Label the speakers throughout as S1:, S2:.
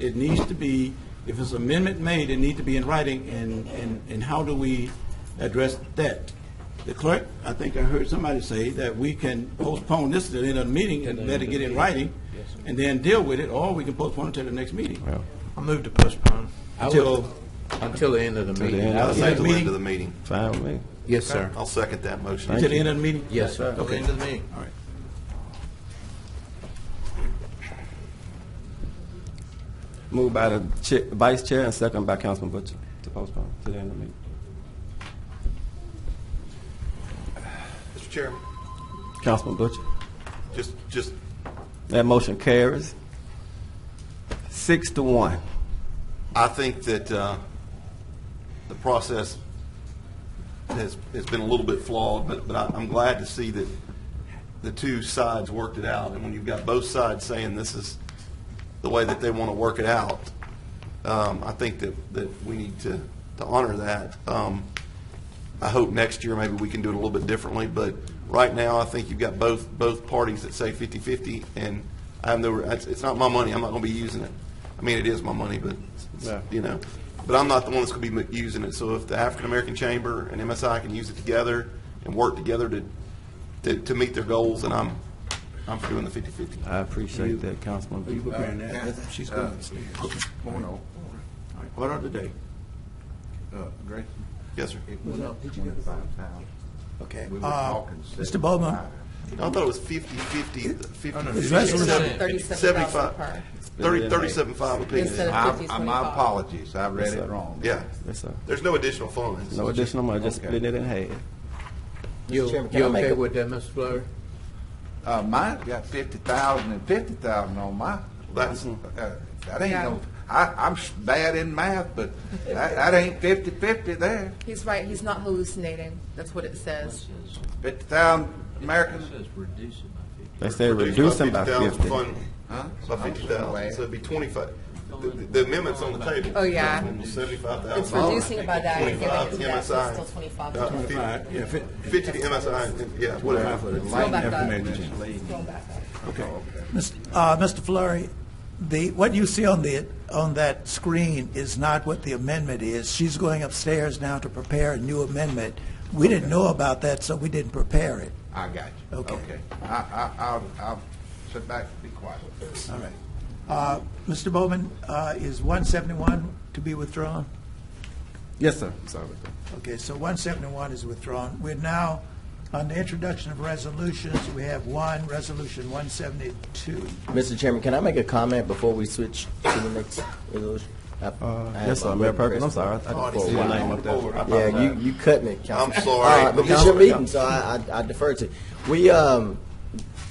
S1: It needs to be, if it's amendment made, it need to be in writing, and, and, and how do we address that? The clerk, I think I heard somebody say that we can postpone this to the end of the meeting and let it get in writing, and then deal with it, or we can postpone it to the next meeting.
S2: I move to postpone.
S3: I would-
S1: Till,
S3: Until the end of the meeting.
S4: end
S3: I
S4: of
S3: would
S1: the
S3: like-
S4: Till the end of the meeting.
S5: Fine with me.
S3: Yes, sir.
S4: I'll second that motion.
S1: till the end of the meeting?
S3: Yes, sir.
S2: Till the end of the meeting.
S1: All right.
S5: Moved by the chair, vice chair and second by Councilman Butcher to postpone to the end of the meeting.
S4: Mr. Chairman,
S5: Councilman Butcher,
S4: just, just,
S5: that motion carries six to one.
S4: I think that uh, the process has, has been a little bit flawed, but, but I- I'm glad to see that the two sides worked it out. And when you've got both sides saying this is the way that they want to work it out, um, I think that, that we need to, to honor that. Um, I hope next year maybe we can do it a little bit differently, but right now, I think you've got both, both parties that say 50/50, and I have no, it's, it's not my money, I'm not gonna be using it. I mean, it is my money, but, it's-
S5: Yeah.
S4: you know, but I'm not the one that's gonna be m- using it, so if the African-American Chamber and MSI can use it together and work together to, to, to meet their goals, and I'm, I'm for doing the 50/50.
S5: I appreciate that, Councilman
S1: You
S5: Butcher.
S1: preparing that? That's- She's going.
S6: Point of
S1: All right. Order of the day.
S6: order, uh, Grayson.
S4: Yes, sir.
S6: It went up twenty-five thousand.
S1: Okay.
S6: We were
S1: Uh,
S6: talking
S1: Mr. Bowman.
S6: 75.
S4: I thought it was 50/50, 50.
S1: It's resolution.
S4: Seventy-five.
S7: 37,000 per.
S4: Thirty, thirty-seven-five apiece.
S7: Instead
S6: I-
S7: of 50,
S6: I- My
S7: 25.
S6: apologies, I read it wrong.
S4: Yeah,
S5: Yes, sir.
S4: there's no additional funds.
S5: No additional money, just
S6: Okay.
S5: split it in half.
S3: You,
S7: Chairman, can
S3: you
S7: I make
S3: okay
S7: a-
S3: with that, Mr. Flurry?
S6: Uh, mine's got fifty thousand and fifty thousand on my,
S4: That's-
S1: Mm-hmm.
S6: uh, that ain't no, I, I'm s- bad in math, but that, that ain't fifty-fifty there.
S7: He's right, he's not hallucinating, that's what it says.
S6: Fifty thousand Americans.
S5: They said
S4: Reduce
S5: reduce them by fifty.
S4: fund By fifty thousand, so it'd be twenty-five. The- The amendment's on the table.
S7: Oh, yeah.
S4: Seventy-five thousand.
S7: It's reducing it by that and giving it to that, so it's still
S4: MSI.
S7: twenty-five.
S4: Uh,
S7: Scroll
S1: All right, yeah, fit-
S4: Fifty to MSI, and- yeah, whatever.
S7: back up.
S6: Leading.
S7: Scroll back up.
S8: Mr. uh, Mr. Flurry, the, what you see on the, on that screen is not what the amendment is. She's going upstairs now to prepare a new amendment. We didn't know about that, so we didn't prepare it.
S6: I got you.
S8: Okay.
S6: Okay. I, I, I'll, I'll sit back and be quiet with this.
S8: All right. Uh, Mr. Bowman, uh, is 171 to be withdrawn?
S5: Yes, sir. Sorry about that.
S8: Okay, so 171 is withdrawn. We're now on the introduction of resolutions. We have one, Resolution 172.
S9: Mr. Chairman, can I make a comment before we switch to the next resolution? I-
S5: Uh,
S9: I have
S5: yes, sir,
S9: my
S5: Mayor
S9: little
S5: Perkins, I'm
S9: press-
S5: sorry, I- I just pulled your
S4: Yeah,
S5: name up there.
S9: Yeah, you, you cut me, Councilman.
S4: I'm sorry.
S9: All right, but it's your meeting, so I, I I defer to you. We, um,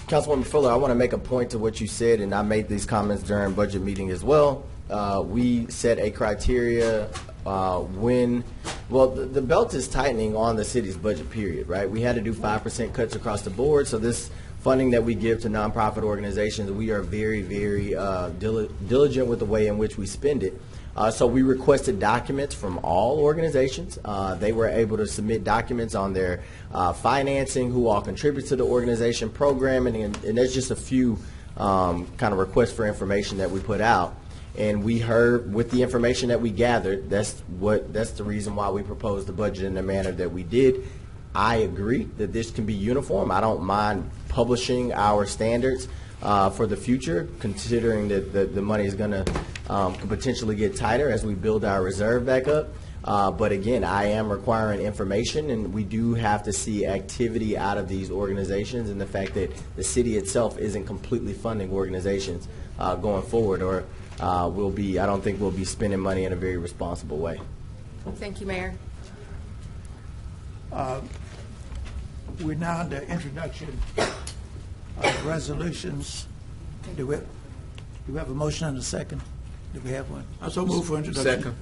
S9: Councilwoman Fuller, I want to make a point to what you said, and I made these comments during budget meeting as well. Uh, we set a criteria, uh, when, well, the, the belt is tightening on the city's budget period, right? We had to do five percent cuts across the board, so this funding that we give to nonprofit organizations, we are very, very, uh, dili- diligent with the way in which we spend it. Uh, so we requested documents from all organizations. Uh, they were able to submit documents on their uh, financing, who all contributes to the organization programming, and, and that's just a few um, kind of requests for information that we put out. And we heard with the information that we gathered, that's what that's the reason why we proposed the budget in the manner that we did. I agree that this can be uniform. I don't mind publishing our standards uh, for the future, considering that the, the money is going to um, could potentially get tighter as we build our reserve back up. Uh, but again, I am requiring information, and we do have to see activity out of these organizations, and the fact that the city itself isn't completely funding organizations uh, going forward, or uh, we'll be. I don't think we'll be spending money in a very responsible way.
S7: Thank you, Mayor.
S8: We're now on the introduction of resolutions. Do we, do we have a motion and a second? Do we have one?
S1: I so move for introduction.
S3: Second.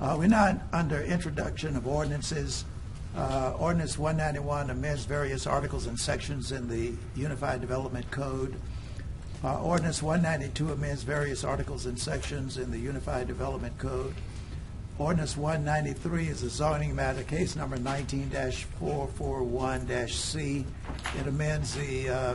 S8: Uh, We're now under introduction of ordinances. Uh, Ordinance 191 amends various articles and sections in the Unified Development Code. Uh, Ordinance 192 amends various articles and sections in the Unified Development Code. Ordinance 193 is a zoning matter, case number 19-441-C. It amends the uh,